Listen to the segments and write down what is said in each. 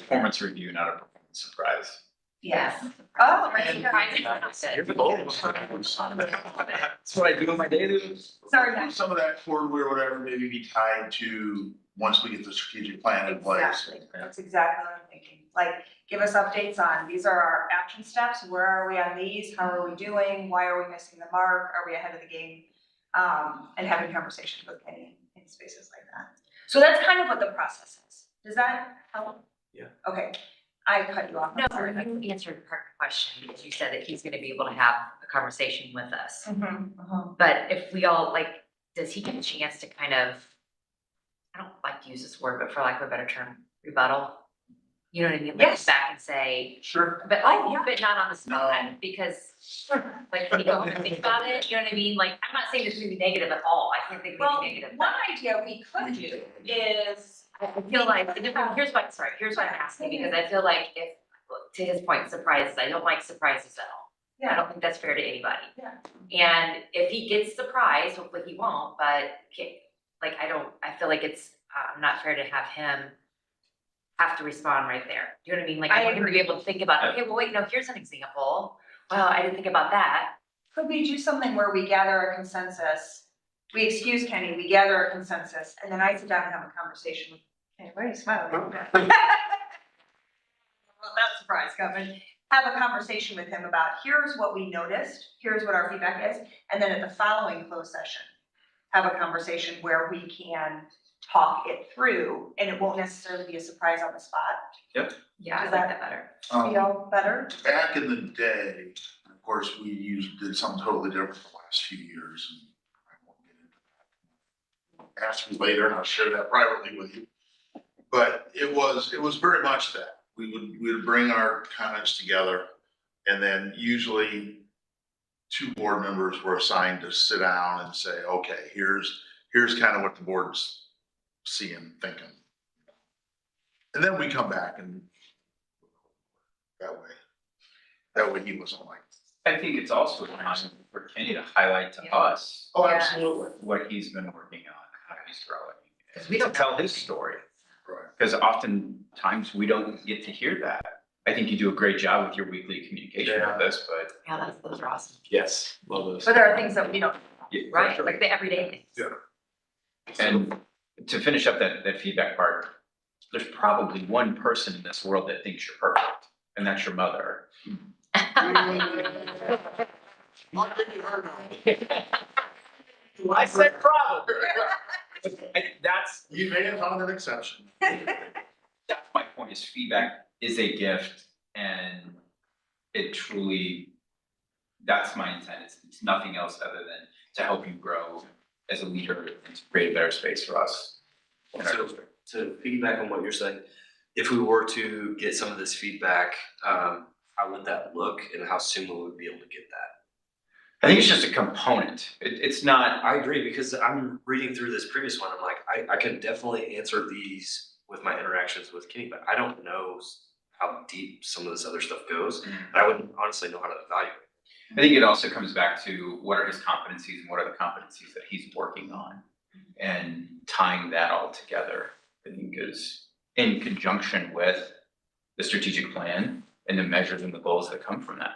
performance review, not a performance surprise. Yes. Oh, Right, That's what I do in my daily. Sorry, Matt. Some of that forward or whatever maybe be tied to, once we get the strategic plan in place. Exactly, that's exactly what I'm thinking, like, give us updates on, these are our action steps, where are we on these, how are we doing, why are we missing the mark, are we ahead of the game? Um, and having conversations with Kenny in spaces like that, so that's kind of what the process is, does that help? Yeah. Okay, I cut you off. I'm No, sorry. you answered part of the question, because you said that he's gonna be able to have a conversation with us. Mhm, uh-huh. But if we all, like, does he get a chance to kind of, I don't like to use this word, but for lack of a better term, rebuttal? You know what I mean? Like, Yes. Back and say, Sure. but Oh, yeah. like, but not on the No. spot, because, like, can you go home and think about it? You know what I mean? Like, I'm not saying this is gonna be negative at all, I can't think of Well, anything negative. one idea we could do is, I I feel like, here's what, sorry, here's what I'm asking, because I feel like if, to his point, surprises, I don't like surprises at all. I yeah, don't think that's fair to anybody. Yeah. And if he gets surprised, hopefully he won't, but ca- like, I don't, I feel like it's, uh, not fair to have him have to respond right there. Do you know what I mean? Like, I I want him to be able to think about, okay, well, wait, no, here's an example. Well, I didn't think about that. could we do something where we gather a consensus? We excuse Kenny, we gather a consensus, and then I sit down and have a conversation with Kenny, why are you smiling? Well, that surprise coming, have a conversation with him about, here's what we noticed, here's what our feedback is, and then at the following closed session, have a conversation where we can talk it through, and it won't necessarily be a surprise on the spot. Yeah, I Is like that- that better. Um, Feel better? Back in the day, of course, we used, did something totally different for the last few years. and I won't get into that. Ask me later and I'll share that privately with you. But it was, it was very much that. We would, we would bring our comments together and then usually two board members were assigned to sit down and say, okay, here's, here's kind of what the board's seeing, thinking. And then we come back and that way. That way he wasn't like, I think it's also important for Kenny to highlight to us oh, Yeah. absolutely. what he's been working on, how he's growing. 'Cause we don't To tell know. his story, Right. because oftentimes we don't get to hear that. I think you do a great job with your weekly communication Yeah. with us, but Yeah, that's, those are awesome. Yes, love those. But there are things that we don't, yeah, for right? sure. Like the everyday things. Yeah. And to finish up that, that feedback part, there's probably one person in this world that thinks you're perfect, and that's your mother. I'll give you her now. I said probably. I- That's, You may have found an exception. that's my point, is feedback is a gift, and it truly, that's my intent, it's, it's nothing else other than to help you grow as a leader and to create a better space for us. in our So- district. To piggyback on what you're saying, if we were to get some of this feedback, um, how would that look and how soon would we be able to get that? I think it's just a component, it, it's not, I agree, because I'm reading through this previous one, I'm like, I, I can definitely answer these with my interactions with Kenny, but I don't know s- how deep some of this other stuff goes. Mm. Mm-hmm. And I wouldn't honestly know how to evaluate. I think it also comes back to what are his competencies and what are the competencies that he's working on? And tying that all together, I think is in conjunction with the strategic plan and the measures and the goals that come from that.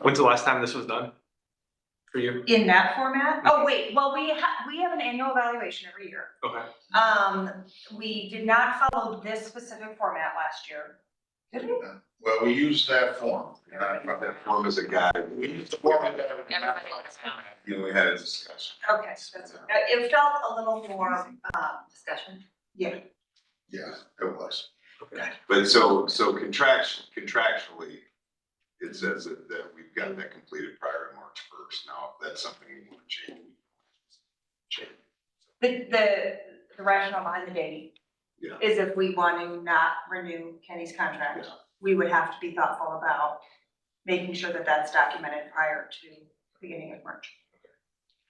When's the last time this was done? For you? In that format? Oh, wait, well, we ha- we have an annual evaluation every year. Okay. Um, we did not follow this specific format last year. Did we? Well, we use that form, and I brought that form as a guide. We used the form as a guide. Everybody wants to know. You know, we had a discussion. Okay, so that's, it felt a little more, um, Discussion. yeah, Yeah, it was. But so, so contractually, contractually, it says that, that we've got that completed prior to March first. Now, if that's something we want to change. Change. the, the the rationale behind the dating Yeah. is if we want to not renew Kenny's contract, Yeah. we would have to be thoughtful about making sure that that's documented prior to beginning of March.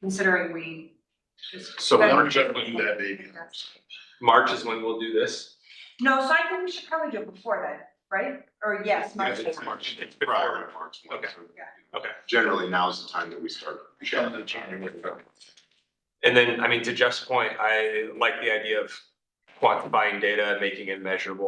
Considering we. So But- Everybody knew that baby. March is when we'll do this? No, so I think we should probably do it before then, right? Or yes, Yeah, March. it's fourth. March, it's prior to March. one, Okay. so, you know, Okay. Generally, now's the time that we start. And then, I mean, to Jeff's point, I like the idea of quantifying data, making it measurable.